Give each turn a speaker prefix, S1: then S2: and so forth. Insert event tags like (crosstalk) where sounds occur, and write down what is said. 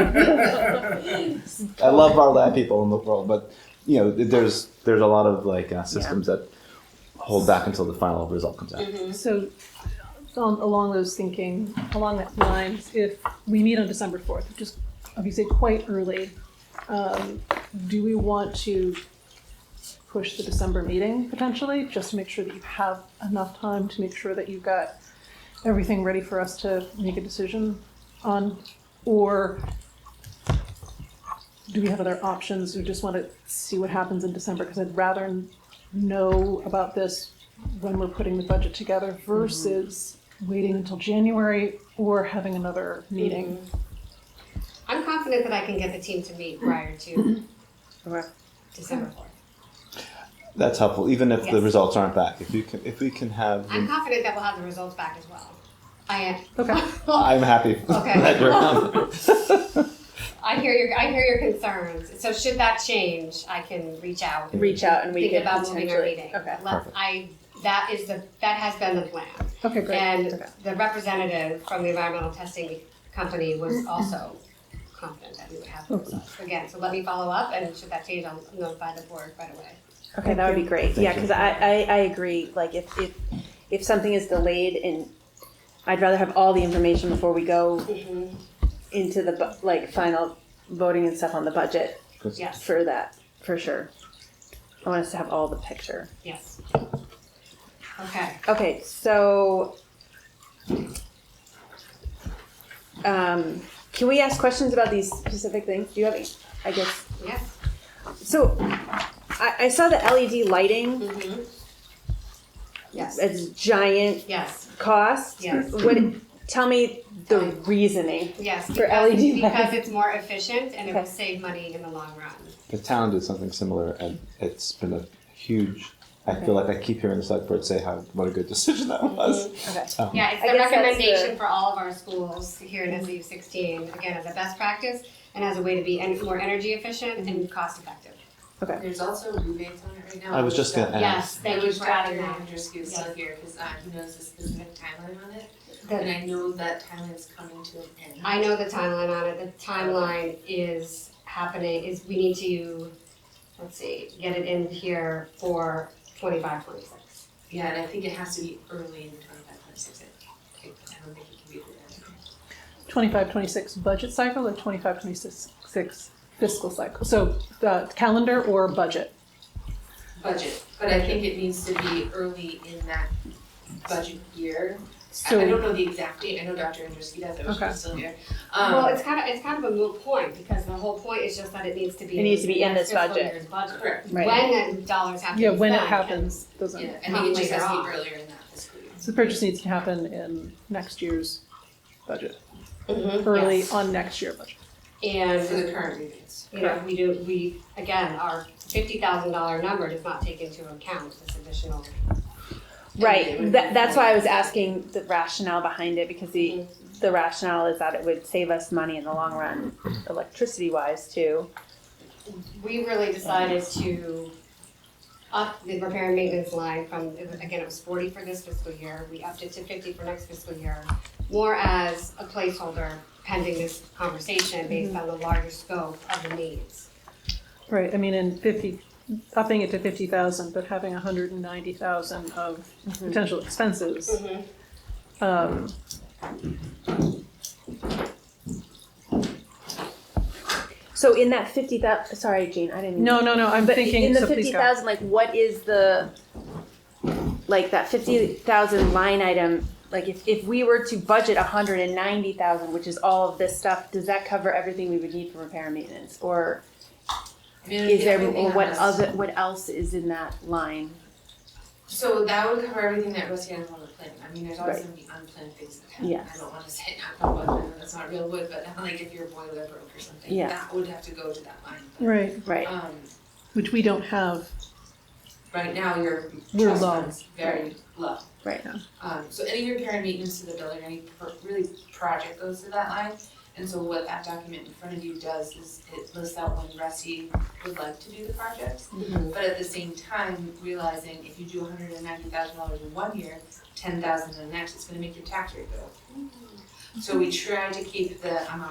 S1: Yeah.
S2: I love our lab people in the world, but you know, there's there's a lot of like uh, systems that hold back until the final result comes out.
S1: Mm-hmm.
S3: So, um, along those thinking, along that lines, if we meet on December fourth, which is obviously quite early, um, do we want to push the December meeting potentially, just to make sure that you have enough time to make sure that you've got everything ready for us to make a decision on, or do we have other options? We just want to see what happens in December because I'd rather know about this when we're putting the budget together versus waiting until January or having another meeting.
S1: I'm confident that I can get the team to meet prior to
S4: Okay.
S1: December fourth.
S2: That's helpful, even if the
S1: Yes.
S2: results aren't back. If you can, if we can have,
S1: I'm confident that we'll have the results back as well. I am.
S3: Okay.
S2: I'm happy
S1: Okay.
S2: (laughs) that we're on.
S1: (laughs) I hear your, I hear your concerns. So should that change, I can reach out. and
S4: Reach out and we
S1: Think
S4: could
S1: about moving our
S4: potentially-
S1: meeting.
S4: Okay.
S1: Let-
S2: Perfect.
S1: I, that is the, that has been the plan.
S3: Okay, great.
S1: And
S4: Okay.
S1: the representative from the environmental testing company was also confident that we would have the results. Again, so let me follow up and should that change, I'll notify the board right away.
S4: Okay, that would be great.
S2: Thank
S4: yeah,
S2: you.
S4: because I, I, I agree. Like if, if if something is delayed and I'd rather have all the information before we go
S1: Mhm.
S4: into the bu- like final voting and stuff on the budget
S1: Yes,
S4: for that for sure. I want us to have all the picture.
S1: yes. Okay,
S4: Okay, so um, can we ask questions about these specific things? Do you have? any? I guess
S1: yes.
S4: so. I, I saw the LED lighting
S1: Mhm. Yes,
S4: as giant
S1: yes,
S4: cost.
S1: Yes.
S4: What? Tell me the reasoning.
S1: yes.
S4: For
S1: because-
S4: LED
S1: Because
S4: lights.
S1: it's more efficient and it will
S4: Okay.
S1: save money in the long run.
S2: The town did something similar, and it's been a huge. I feel like I keep hearing the select board say how what a good decision that was.
S1: Mm-hmm.
S4: Okay.
S2: Um,
S1: Yeah, it's the
S4: I guess that's the-
S1: recommendation for all of our schools here in SU sixteen, again, as a best practice and as a way to be en- more energy efficient
S4: Mm-hmm.
S1: and cost effective.
S5: There's also rebates on it right now.
S2: I was just gonna ask.
S1: Yes, thank you
S5: Which
S1: for adding
S5: Dr.
S1: that.
S5: Andrews gives
S1: Yeah.
S5: up here, because he knows the specific timeline on it, and
S1: The-
S5: I know that timeline's coming to an end.
S1: I know the timeline on it, the timeline is happening, is we need to, let's see, get it in here for twenty-five, twenty-six.
S5: Yeah, and I think it has to be early in twenty-five, twenty-six, I think. I don't think it can be later.
S3: 25, 26 budget cycle or 25, 26 six fiscal cycle? So uh, calendar or budget?
S5: Budget, but I think it needs to be early in that budget year. I- I don't
S3: So,
S5: know the exact date, I know Dr. Andrews, does, I wish he
S3: Okay.
S5: was still here.
S1: Well,
S5: Um,
S1: it's kind of, it's kind of a moot point, because the whole point is just that it needs to be.
S4: It needs to be in this
S1: fiscal
S4: budget.
S1: year's budget.
S5: correct,
S4: Right.
S1: When the dollars have to be
S3: yeah,
S1: spent.
S3: when it
S1: and-
S3: happens, doesn't.
S5: yeah, I think it just
S1: Later
S5: has to
S1: on.
S5: be earlier in that fiscal year.
S3: So the purchase needs to happen in next year's budget,
S1: Mhm,
S3: early
S1: yes.
S3: on next year budget.
S5: For
S1: And,
S5: the current rebates.
S1: you know, we do, we, again, our fifty thousand dollar number does not take into account this additional.
S4: Right. That, that's why I was asking the rationale behind it because the the rationale is that it would save us money in the long run, electricity wise too.
S1: we really decided to up the repair and maintenance line from, it was- again, it was forty for this fiscal year, we upped it to fifty for next fiscal year, more as a placeholder pending this conversation based on the larger scope of the needs.
S3: Right, I mean, in fifty, upping it to fifty thousand, but having hundred and ninety thousand of potential expenses. Um,
S4: So in that fifty thousand, sorry, Jean, I didn't.
S3: no, no, no, I'm
S4: but
S3: thinking,
S4: in the
S3: so please
S4: fifty
S3: go.
S4: thousand, like what is the like that fifty thousand line item? Like if, if we were to budget a hundred and ninety thousand, which is all of this stuff, does that cover everything we would need for repair and maintenance, or is there or what other what else is in that line?
S5: So that would cover everything that goes here in the plan. I mean, there's always
S4: Right.
S5: gonna be unplanned things that happen.
S4: Yes.
S5: I don't wanna say knock on wood, I know that's not real wood, but (laughs) like if your boiler broke or something,
S4: Yeah.
S5: that would have to go to that line. But,
S3: Right,
S4: Right.
S5: Um,
S3: which we don't have,
S5: right now, your
S3: We're
S5: trust
S3: low.
S5: fund's very low.
S4: Right.
S3: Yeah.
S5: Um, so any repair and maintenance to the building, any pro- really project goes to that line. And so what that document in front of you does is it lists out when Rusty would like to do the projects. But at the same time, realizing if you do hundred and ninety thousand dollars in one year, ten thousand in the next, it's gonna make your tax rate go. up. So we try to keep the amount